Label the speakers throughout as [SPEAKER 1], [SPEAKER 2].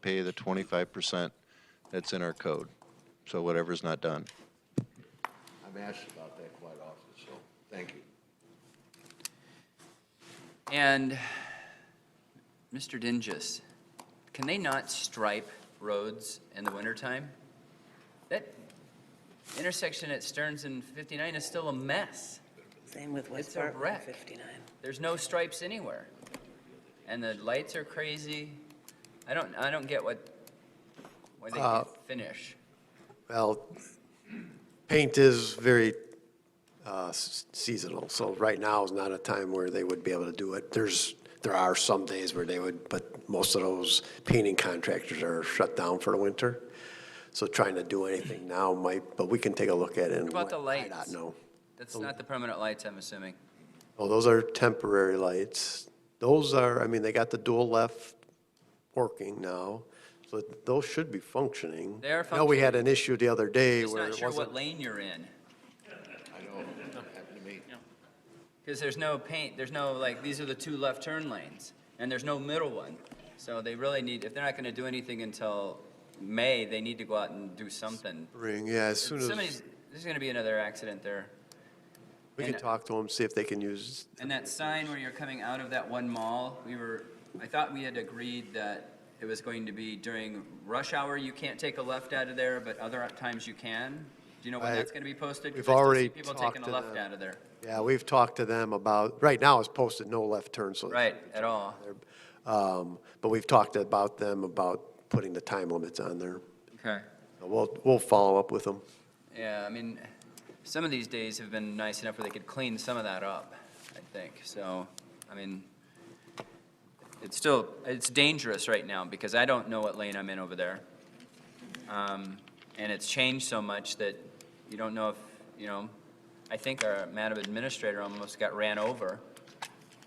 [SPEAKER 1] pay the twenty-five percent that's in our code. So whatever's not done.
[SPEAKER 2] I'm asked about that quite often, so, thank you.
[SPEAKER 3] And, Mr. Dingus, can they not stripe roads in the wintertime? That intersection at Stearns and 59 is still a mess.
[SPEAKER 4] Same with
[SPEAKER 3] It's
[SPEAKER 4] West
[SPEAKER 3] a
[SPEAKER 4] Park,
[SPEAKER 3] wreck.
[SPEAKER 4] 59.
[SPEAKER 3] There's no stripes anywhere. And the lights are crazy. I don't, I don't get what, why they can't finish.
[SPEAKER 5] Well, paint is very uh, s- seasonal, so right now is not a time where they would be able to do it. There's, there are some days where they would, but most of those painting contractors are shut down for the winter. So trying to do anything now might, but we can take a look at it.
[SPEAKER 3] What
[SPEAKER 5] and
[SPEAKER 3] about the
[SPEAKER 5] let
[SPEAKER 3] lights?
[SPEAKER 5] IDOT know.
[SPEAKER 3] That's not the permanent lights, I'm assuming.
[SPEAKER 5] Oh, those are temporary lights. Those are, I mean, they got the dual left working now, so those should be functioning.
[SPEAKER 3] They are
[SPEAKER 5] I know we had an issue the other day
[SPEAKER 3] Just
[SPEAKER 5] where
[SPEAKER 3] not
[SPEAKER 5] it
[SPEAKER 3] sure
[SPEAKER 5] wasn't.
[SPEAKER 3] what lane you're in.
[SPEAKER 2] I know, it happened to me.
[SPEAKER 3] Because there's no paint, there's no, like, these are the two left turn lanes, and there's no middle one. So they really need, if they're not gonna do anything until May, they need to go out and do something.
[SPEAKER 5] Ring, yeah, as soon as,
[SPEAKER 3] Somebody's, there's gonna be another accident there.
[SPEAKER 5] we can
[SPEAKER 3] and-
[SPEAKER 5] talk to them, see if they can use,
[SPEAKER 3] And that sign where you're coming out of that one mall, we were, I thought we had agreed that it was going to be during rush hour, you can't take a left out of there, but other times you can. Do you know when
[SPEAKER 5] I-
[SPEAKER 3] that's gonna be posted? 'Cause
[SPEAKER 5] we've
[SPEAKER 3] I still see
[SPEAKER 5] already
[SPEAKER 3] People
[SPEAKER 5] talked
[SPEAKER 3] taking a
[SPEAKER 5] to
[SPEAKER 3] left
[SPEAKER 5] them.
[SPEAKER 3] out of there,
[SPEAKER 5] yeah, we've talked to them about, right now it's posted no left turn, so.
[SPEAKER 3] right, at all.
[SPEAKER 5] Um, but we've talked about them about putting the time limits on there.
[SPEAKER 3] Okay.
[SPEAKER 5] We'll, we'll follow up with them.
[SPEAKER 3] Yeah, I mean, some of these days have been nice enough where they could clean some of that up, I think. So, I mean, it's still, it's dangerous right now because I don't know what lane I'm in over there. Um, And it's changed so much that you don't know if, you know, I think our madam administrator almost got ran over.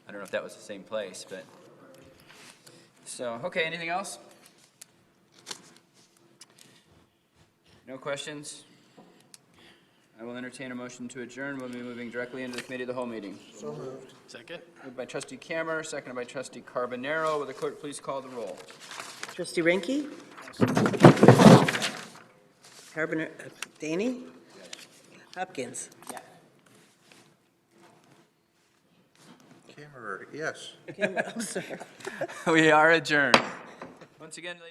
[SPEAKER 3] I don't know if that was the same place, but, so, okay, anything else? No questions? I will entertain a motion to adjourn. We'll be moving directly into the committee of the whole meeting. So moved. Second. Moved by trustee Camer, seconded by trustee Carbonaro. Will the clerk please call the roll?
[SPEAKER 4] Trustee Ranky? Carboner, uh, Danny? Hopkins?
[SPEAKER 2] Camera, yes.
[SPEAKER 4] Kim- I'm sorry.
[SPEAKER 3] We are adjourned. Once again, ladies